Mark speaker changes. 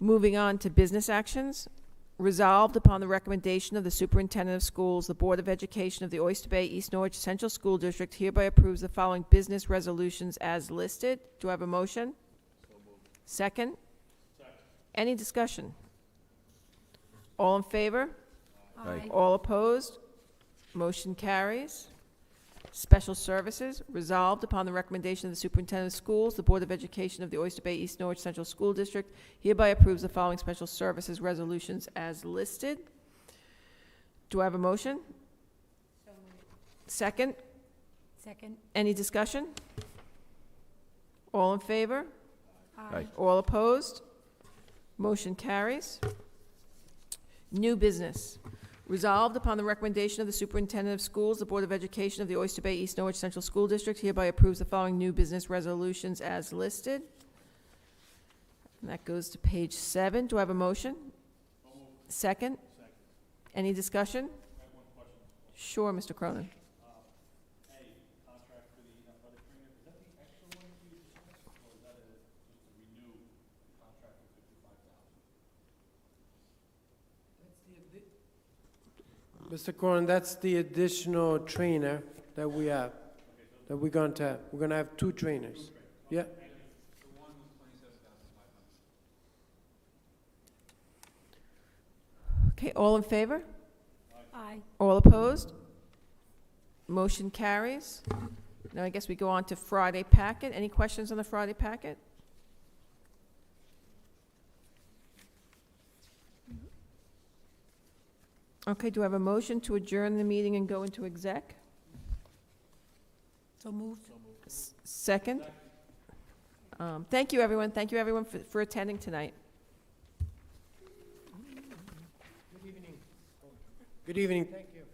Speaker 1: Moving on to business actions. Resolved upon the recommendation of the superintendent of schools, the Board of Education of the Oyster Bay East Norwich Central School District hereby approves the following business resolutions as listed. Do I have a motion? Second? Second. Any discussion? All in favor?
Speaker 2: Aye.
Speaker 1: All opposed? Motion carries. Special Services, resolved upon the recommendation of the Superintendent of Schools, the Board of Education of the Oyster Bay East Norwich Central School District hereby approves the following special services resolutions as listed. Do I have a motion? Second,
Speaker 2: Second?
Speaker 1: any discussion? All in favor?
Speaker 2: Aye.
Speaker 1: All opposed? Motion carries. New business. Resolved upon the recommendation of the Superintendent of Schools, the Board of Education of the Oyster Bay East Norwich Central School District hereby approves the following new business resolutions as listed. And that goes to page seven. Do I have a motion? Second? Any discussion? Sure, Mr. Cronin.
Speaker 3: Mr. Corn, that's the additional trainer that we have, that we're going to have. We're going to have two trainers. Yeah.
Speaker 1: Okay, all in favor?
Speaker 2: Aye.
Speaker 1: All opposed? Motion carries. Now I guess we go on to Friday packet. Any questions on the Friday packet? Okay, do I have a motion to adjourn the meeting and go into exec?
Speaker 2: So moved.
Speaker 1: S- Second? Um, Thank you, everyone. Thank you, everyone, for for attending tonight.
Speaker 3: Good evening. Thank you.